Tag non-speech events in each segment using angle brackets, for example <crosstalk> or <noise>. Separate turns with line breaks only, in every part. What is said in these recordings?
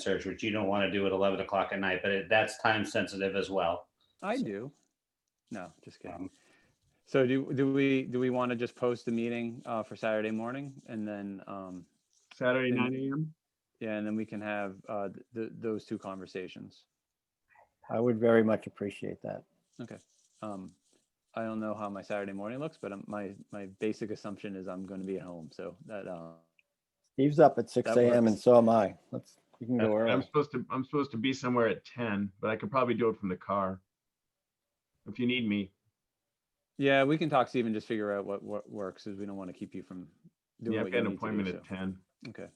search, which you don't want to do at 11 o'clock at night, but it- that's time sensitive as well.
I do. No, just kidding.
Um,
So do, do we, do we want to just post the meeting uh, for Saturday morning and then, um,
Saturday,
And-
nine AM?
yeah, and then we can have uh, th- th- those two conversations.
I would very much appreciate that.
Um, I don't know how my Saturday morning looks, but um, my, my basic assumption is I'm going to be at home, so that, uh,
Steve's up at six
That
AM and
works.
so am I. Let's, you can go
I'm
early.
supposed to, I'm supposed to be somewhere at ten, but I could probably do it from the car. If you need me,
yeah, we can talk, Steve, and just figure out what, what works, because we don't want to keep you from doing what
yeah, I've
you
got an
need to do,
appointment at
so.
ten.
Okay.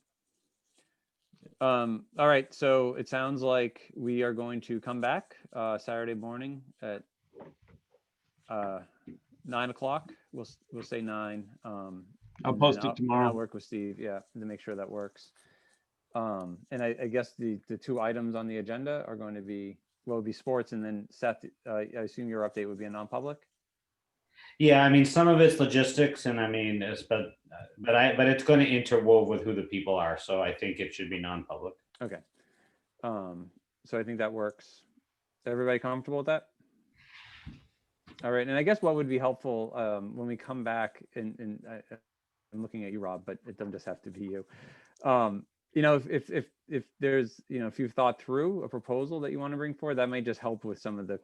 Um, all right, so it sounds like we are going to come back, uh, Saturday morning at uh, nine o'clock. We'll, s- we'll say nine. um,
I'll
and then
post it
and
tomorrow.
I'll work with Steve, yeah, to make sure that works. Um, and I, I guess the, the two items on the agenda are going to be, well, it'll be sports and then Seth, uh, I assume your update would be a non-public?
Yeah, I mean, some of it's logistics and I mean, it's, but, but I, but it's going to interwove with who the people are. So I think it should be non-public.
Okay. Um, so I think that works. Is everybody comfortable with that? All right, and I guess what would be helpful, um, when we come back and, and I- I- I'm looking at you, Rob, but it doesn't just have to be you. Um, you know, if, if, if, if there's, you know, if you've thought through a proposal that you want to bring forward, that may just help with some of the,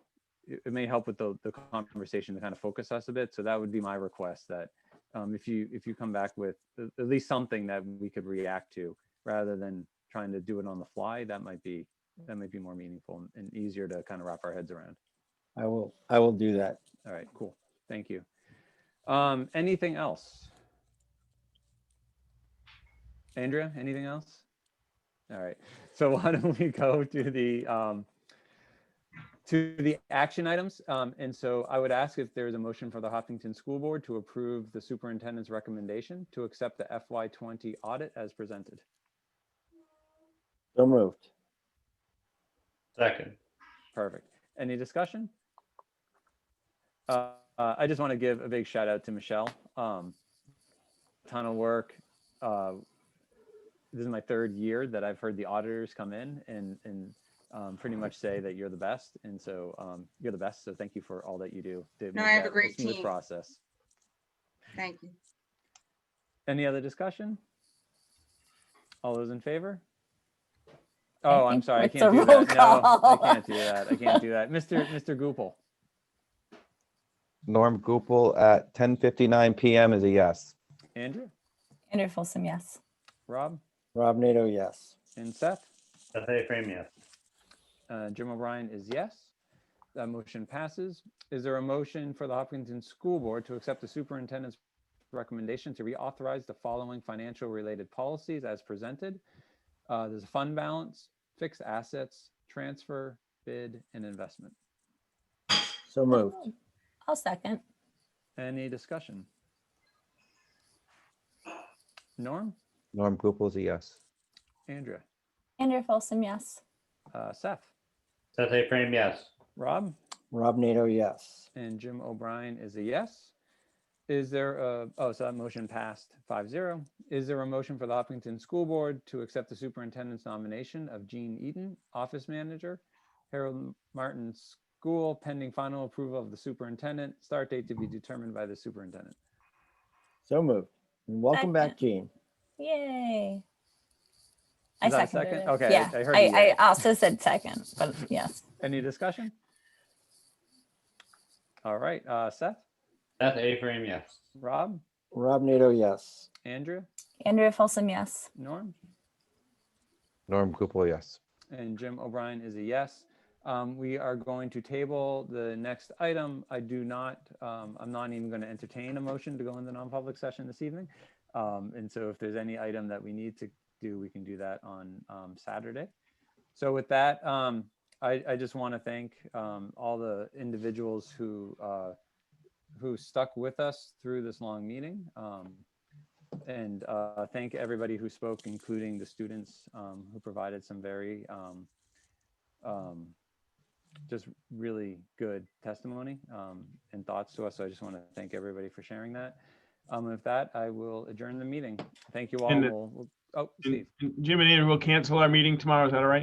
it it may help with the, the conversation to kind of focus us a bit. So that would be my request that, um, if you, if you come back with a- at least something that we could react to rather than trying to do it on the fly, that might be, that might be more meaningful and- and easier to kind of wrap our heads around.
I will, I will do that.
All right, cool. Thank you. Um, anything else? Andrea, anything else? All right, so <laughs> why don't we go to the, um, to the action items? Um, and so I would ask if there is a motion for the Hopkinton School Board to approve the superintendent's recommendation to accept the FY twenty audit as presented.
So moved.
Second.
Perfect. Any discussion? Uh, uh, I just want to give a big shout out to Michelle. Um, ton of work. Uh, this is my third year that I've heard the auditors come in and and um, pretty much say that you're the best, and so um, you're the best. So thank you for all that you do. to make
I have a
that
great
smooth
team.
Process.
Thank you.
Any other discussion? All those in favor? Oh, I'm
think
sorry, I
it's
can't
a
do that.
roll
No, I
call.
can't do that. I can't do that. Mr. Mr. Goupel.
Norm Gupel at 10:59 PM is a yes.
Andrew,
Andrew Folsom, yes.
Rob,
Rob Nato, yes.
and Seth.
Seth A. Frame, yes.
Uh, Jim O'Brien is yes. That motion passes. Is there a motion for the Hopkinton School Board to accept the superintendent's recommendation to reauthorize the following financial related policies as presented? Uh, There's a fund balance, fixed assets, transfer, bid, and investment.
So moved.
I'll second.
Any discussion? Norm,
Norm Gupel is a yes.
Andrea,
Andrew Folsom, yes.
uh, Seth,
Seth A. Frame, yes.
Rob?
Rob Nato, yes.
And Jim O'Brien is a yes. Is there a, oh, so that motion passed 5-0. Is there a motion for the Hopkinton School Board to accept the superintendent's nomination of Jean Eaton, office manager, Harold Martin School, pending final approval of the superintendent, start date to be determined by the superintendent?
So moved. And welcome back, Gene.
Yay. I
Is that a
seconded
second?
it.
Okay, I-
Yeah,
I heard you
I,
there.
I also said second, but yes.
Any discussion? All right, uh, Seth,
Seth A. Frame, yes.
Rob,
Rob Nato, yes.
Andrea,
Andrew Folsom, yes.
Norm?
Norm Gupel, yes.
And Jim O'Brien is a yes. Um, we are going to table the next item. I do not, um, I'm not even going to entertain a motion to go into non-public session this evening. Um, and so if there's any item that we need to do, we can do that on, um, Saturday. So with that, um, I, I just want to thank, um, all the individuals who, uh, who stuck with us through this long meeting. Um, and uh, thank everybody who spoke, including the students um, who provided some very um, um, just really good testimony um, and thoughts to us. So I just want to thank everybody for sharing that. Um, with that, I will adjourn the meeting. Thank you all.
And the-
We'll- we'll- oh, Steve.
And Jim and Andrew will cancel our meeting tomorrow. Is that all right?